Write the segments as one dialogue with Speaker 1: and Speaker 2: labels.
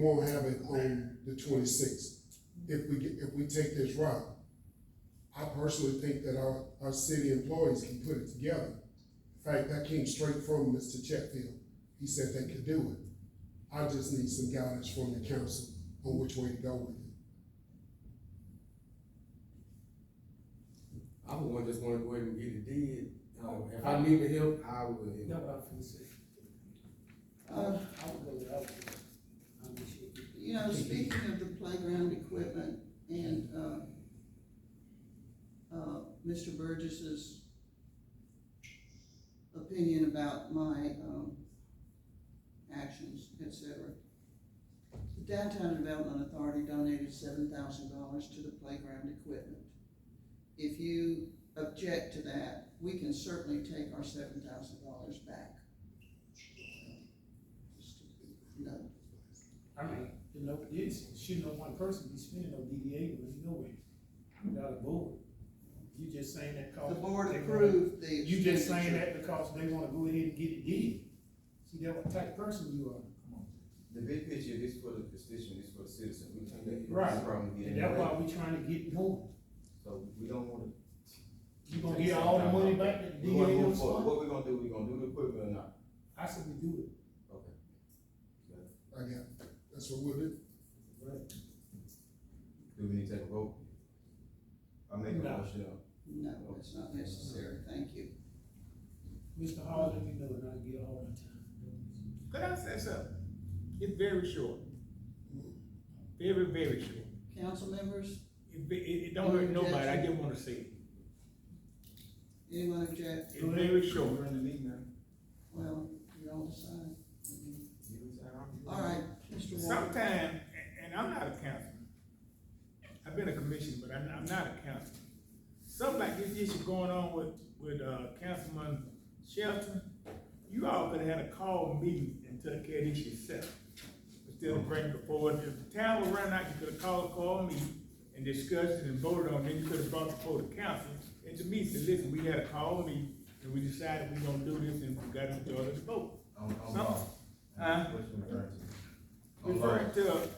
Speaker 1: won't have it on the twenty-sixth. If we get, if we take this route, I personally think that our, our city employees can put it together. In fact, that came straight from Mr. Chetfield. He said they could do it. I just need some guidance from the council on which way to go with it.
Speaker 2: I would want- just wanna go ahead and get it did,
Speaker 3: Oh,
Speaker 2: um, if I needed help, I would.
Speaker 4: No, but I'm sincere. I
Speaker 5: Uh,
Speaker 4: I would go without you. I'm just shaking.
Speaker 5: You know, speaking of the playground equipment and, uh, uh, Mr. Burgess's opinion about my, um, actions, et cetera. The Downtown Development Authority donated seven thousand dollars to the playground equipment. If you object to that, we can certainly take our seven thousand dollars back. Just a note.
Speaker 4: I mean, you know, it's, shouldn't no one person be spending on DDA money nowhere, without a board. You just saying that cause.
Speaker 5: The board
Speaker 4: they wanna-
Speaker 5: approved the.
Speaker 4: You just saying
Speaker 5: expenditure.
Speaker 4: that because they wanna go ahead and get it did. See, that what type of person you are.
Speaker 3: The big picture is for the constituent, is for the citizen, we can't let
Speaker 4: Right.
Speaker 3: this problem get in
Speaker 4: And
Speaker 3: the
Speaker 4: that's why
Speaker 3: way,
Speaker 4: we trying to get going.
Speaker 3: so we don't wanna.
Speaker 4: You gonna get all the money back that the
Speaker 3: We wanna
Speaker 4: DDA
Speaker 3: move
Speaker 4: was
Speaker 3: forward,
Speaker 4: funding?
Speaker 3: what we gonna do, we gonna do the equipment or not?
Speaker 4: I said we do it.
Speaker 3: Okay. Do
Speaker 1: I got, that's what we'll do.
Speaker 3: we need to take a vote? I make a
Speaker 4: No.
Speaker 3: motion, uh,
Speaker 5: No, it's not necessary, thank you.
Speaker 4: Mr. Hall, let me know and I'll get all my time.
Speaker 6: Could I say something? It's very short. Very, very short.
Speaker 5: Council members,
Speaker 6: It, be- it, it don't hurt nobody, I just wanna say it.
Speaker 5: anyone object?
Speaker 6: It's very short.
Speaker 4: We're in the meeting now.
Speaker 5: Well, you all decide.
Speaker 3: you was out.
Speaker 5: All right, Mr. Ward.
Speaker 6: Sometime, and, and I'm not a councilman. I've been a commissioner, but I'm, I'm not a councilman. Something like this issue going on with, with, uh, Councilman Shelton, you all could have had a call meeting and took care of this yourself. Instead of bringing it forward, if the town was running out, you could have called, a call meeting and discussed it and voted on, it. then you could have brought it before the council. And to me, said, listen, we had a call meeting and we decided we are gonna do this and we got to majority of the vote.
Speaker 3: On, on
Speaker 6: Some-
Speaker 3: law.
Speaker 6: Huh?
Speaker 3: What you referring to? On
Speaker 6: Referring
Speaker 3: law.
Speaker 6: to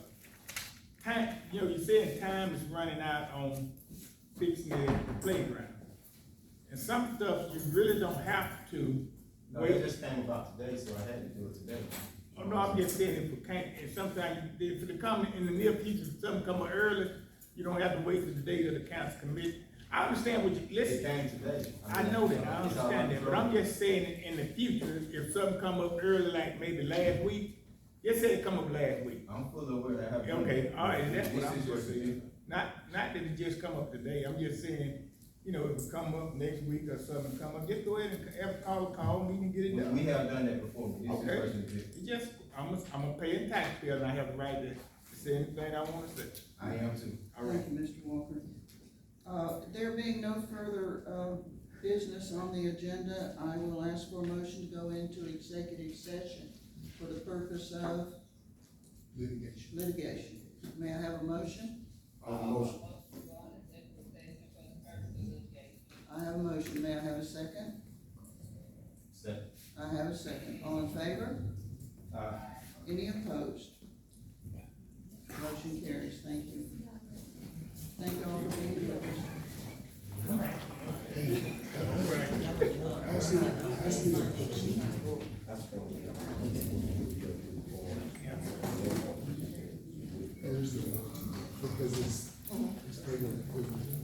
Speaker 6: time, you know, you said time is running out on fixing the playground. And some stuff you really don't have to
Speaker 3: No, it
Speaker 6: wait.
Speaker 3: just came about today, so I had to do it today.
Speaker 6: Oh, no, I'm just saying if it can't, and sometimes if it come in the near future, if something come up early, you don't have to wait till the day of the council committee. I understand what you,
Speaker 3: It
Speaker 6: listen,
Speaker 3: came today.
Speaker 6: I
Speaker 3: mean,
Speaker 6: know that, I
Speaker 3: it's all
Speaker 6: understand that, but I'm
Speaker 3: under
Speaker 6: just saying in the future, if something come up early, like maybe last week, just say it come up last week.
Speaker 3: control. I'm fully aware that I have.
Speaker 6: Okay, all right, that's what
Speaker 3: This
Speaker 6: I'm
Speaker 3: is your
Speaker 6: supposed to do. Not, not that it just come up today, I'm just saying, you know, if it come up next week or something, come up, just go ahead and have a call, call me and get
Speaker 3: We
Speaker 6: it
Speaker 3: we
Speaker 6: done.
Speaker 3: have done that before, but this is
Speaker 6: Okay.
Speaker 3: version fifty.
Speaker 6: It's just, I'm a, I'm a paying taxpayer and I have the right to say anything I wanna say.
Speaker 3: I am too.
Speaker 6: All right,
Speaker 5: Thank you, Mr. Walker. Uh, there being no further, uh, business on the agenda, I will ask for a motion to go into executive session for the purpose of
Speaker 1: Litigation.
Speaker 5: litigation. May I have a motion? I have a motion, may I have a second?
Speaker 3: Step.
Speaker 5: I have a second, all in favor?
Speaker 3: Uh,
Speaker 5: Any opposed? Motion carries, thank you. Thank you all for being with us.
Speaker 1: There's the, because it's, it's bigger than equipment.